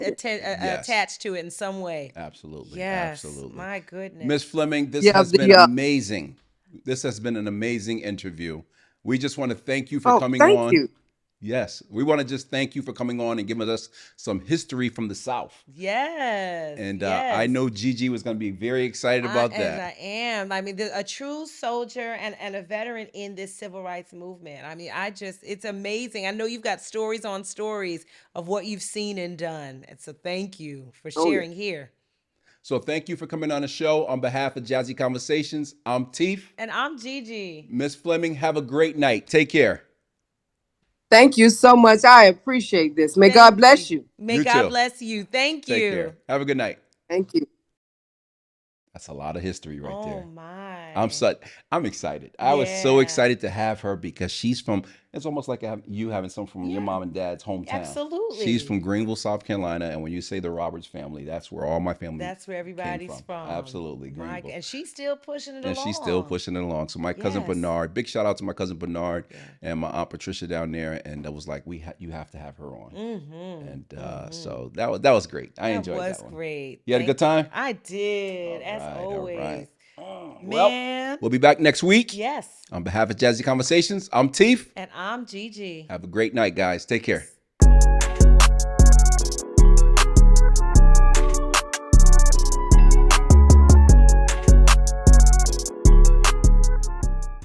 atta- uh, Yes. attached to it in some way. Absolutely. Yes, Absolutely. my goodness. Miss Fleming, this Yeah, has the, been uh, amazing. This has been an amazing interview. We just want to thank you for Oh, coming thank on. you. Yes, we want to just thank you for coming on and giving us some history from the South. yes, And uh, I yes. know Gigi was going to be very excited I- about and that. I am. I mean, the, a true soldier and, and a veteran in this civil rights movement. I mean, I just, it's amazing. I know you've got stories on stories of what you've seen and done. And so thank you for Oh, yeah. sharing here. so thank you for coming on the show on behalf of Jazzy Conversations. I'm Teef. And I'm Gigi. Miss Fleming, have a great night. Take care. Thank you so much. I appreciate this. May God Thank bless you. May You God too. bless you. Thank Take you. care. Have a good night. Thank you. That's a lot of history right oh there. my. I'm such. I'm excited. I was so Yeah. excited to have her because she's from. It's almost like I- you having some from Yeah. your mom and dad's hometown. Absolutely. She's from Greenville, South Carolina, and when you say the Roberts family, that's where all my family. That's where everybody's from. from. Absolutely, My g- Greenville. and she's still pushing it and she's still along. pushing it along. So my cousin Yes. Bernard, big shout out to my cousin Bernard Yeah. and my aunt Patricia down there, and I was like, we ha- you have to have her on, Mhm, and uh, mhm. so that was that was great. I that enjoyed was that one. great. You had a Thank good time. I did, All as right, all always. right. Oh, Well, Man. we'll be back next week. yes. On behalf of Jazzy Conversations, I'm Teef. And I'm Gigi. Have a great night, guys. Take care.